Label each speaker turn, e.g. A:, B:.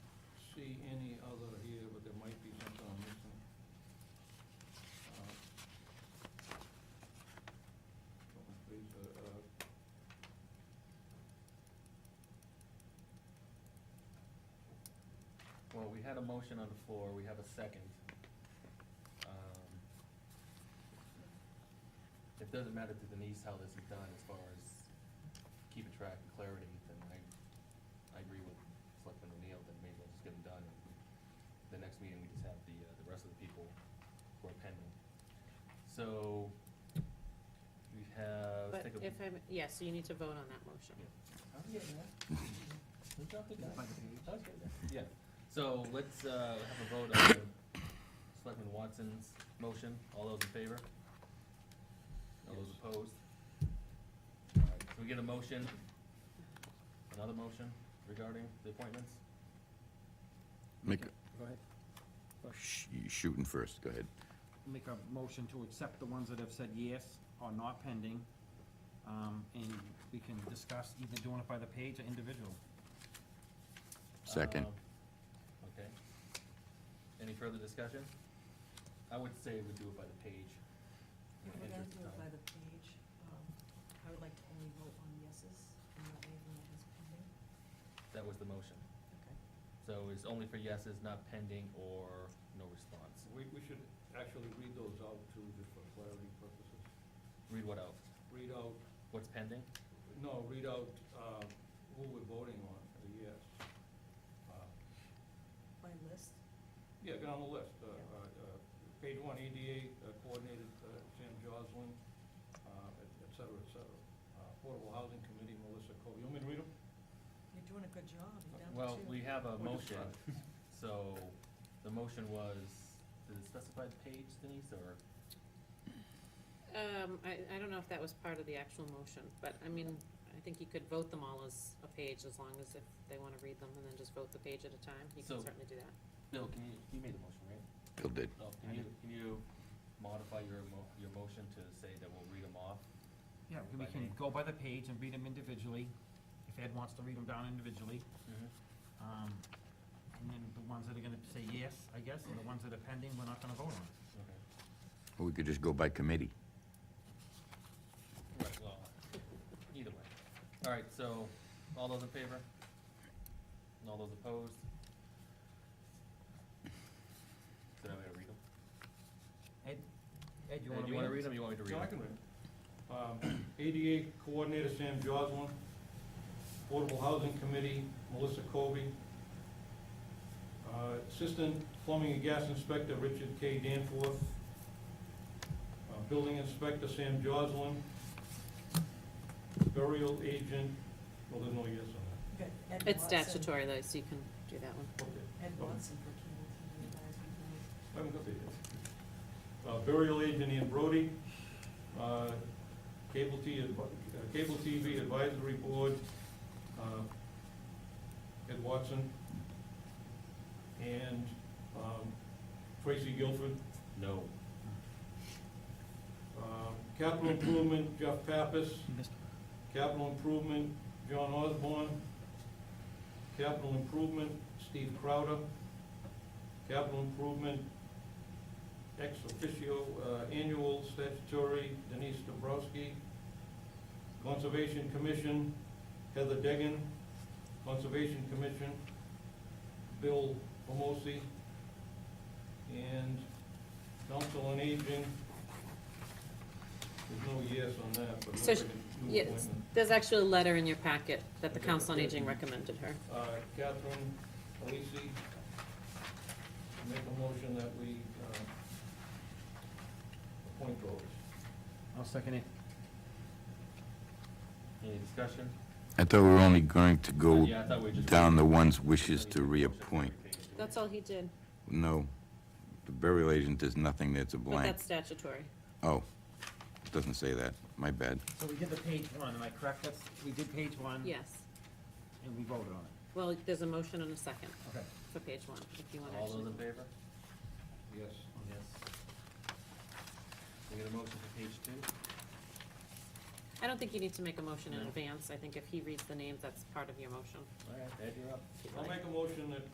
A: see any other here, but there might be something I'm missing. Uh, hold on, Please, uh, uh,
B: Well, we had a motion on the floor, we have a second. Um, It doesn't matter to Denise how this is done as far as keeping track and clarity, then I, I agree with Selectman O'Neill that maybe we'll just get it done. The next meeting, we just have the, uh, the rest of the people who are pending. So, we have,
C: But
B: take a.
C: if I'm, yeah, so you need to vote on that motion.
B: I'm getting there. We dropped it down. I was getting there. Yeah, so let's, uh, have a vote on Selectman Watson's motion, all those in favor? All those opposed? Alright, so we get a motion, another motion regarding the appointments?
D: Make,
E: Go ahead.
D: sh- you shooting first, go ahead.
E: Make a motion to accept the ones that have said yes or not pending, um, and we can discuss either doing it by the page or individual.
D: Second.
B: Um, Okay. Any further discussion? I would say we do it by the page. in
F: If
B: the
F: we're gonna
B: interest
F: do
B: of
F: it by
B: time.
F: the page, um, I would like to only vote on yeses and not anything that is pending.
B: That was the motion.
F: Okay.
B: So it's only for yeses, not pending or no response.
A: we, we should actually read those out too, just for clarity purposes.
B: Read what out?
A: Read out,
B: What's pending?
A: no, read out, uh, who we're voting on, a yes. Uh,
F: By list,
A: Yeah, get on the list. Uh,
F: Yeah.
A: uh, uh, Page one, EDA uh, coordinated, uh, Sam Joslin, uh, et et cetera, et cetera. Uh, Affordable Housing Committee, Melissa Cole. You want me to read them?
F: you're doing a good job, you're down
B: Well,
F: to two.
B: we have a
A: We're just
B: motion,
A: trying.
B: so the motion was, did it specify the page, Denise, or?
C: Um, I, I don't know if that was part of the actual motion, but I mean, I think you could vote them all as a page, as long as if they wanna read them and then just vote the page at a time, you
B: So-
C: can certainly do that.
B: Bill, can you, you made the motion, right?
D: Bill did.
B: Bill, can you, can you modify your mo- your motion to say that we'll read them off?
E: Yeah, we
B: By
E: can
B: name.
E: go by the page and read them individually, if Ed wants to read them down individually.
B: Mm-hmm.
E: Um, and then the ones that are gonna say yes, I guess, and the ones that are pending, we're not gonna vote on.
B: Okay.
D: Or we could just go by committee.
B: Right, well, either way. All right, so, all those in favor? And all those opposed? Did I to read them?
E: Ed, Ed,
B: Hey,
E: you wanna read?
B: Do you wanna read
E: it?
B: them, or you want me to read
A: So
B: them?
A: I can read. Um, ADA Coordinator Sam Joslin, Affordable Housing Committee Melissa Colby, uh, Assistant Plumbing and Gas Inspector Richard K. Danforth, uh, Building Inspector Sam Joslin, Burial Agent, well, there's no yes on
F: Good, Ed
C: It's
F: Watson.
C: statutory though, so you can do that one.
A: that. Okay.
F: Ed Watson for cable TV advisory board.
A: I haven't got there yet. Uh, Burial agent Ian Brody, uh, Cable T, advi- uh, Cable TV Advisory Board, uh, Ed Watson, and um, Tracy Guilford,
B: No.
A: Um, Capital Improvement Jeff Pappas,
E: Mr.
A: Capital Improvement John Osborne, Capital Improvement Steve Crowder, Capital Improvement ex officio uh, annual statutory Denise Dombrowski, Conservation Commission Heather Degan, Conservation Commission Bill Pomosi, and Council on Aging. There's no yes on that, but
C: So
A: nobody
C: sh-
A: can do
C: Yes,
A: appointment.
C: there's actually a letter in your packet that the
A: Okay.
C: Council on Aging recommended her.
A: Uh, Catherine Alisi, make a motion that we um, appoint those.
E: I'll second it.
B: Any discussion? Oh,
D: I thought we were only going to go
B: Yeah, I thought we were just-
D: down the ones wishes to reappoint.
C: That's all he did,
D: No, the burial agent, there's nothing there, it's a
C: but
D: blank.
C: that's statutory.
D: Oh, it doesn't say that, my bad.
E: So we did the page one, am I correct? That's, we did page
B: Mm-hmm.
E: one.
C: Yes,
E: And we voted on it.
C: well, there's a motion and a second
E: Okay.
C: for page one, if you wanna
B: All those
C: actually.
B: in favor?
A: Yes.
B: Yes. We get a motion for page two?
C: I don't think you need to make a motion in
B: No.
C: advance, I think if he reads the names, that's part of your motion.
B: All right, Ed, you're up.
C: if you'd
A: I'll
C: like.
A: make a motion that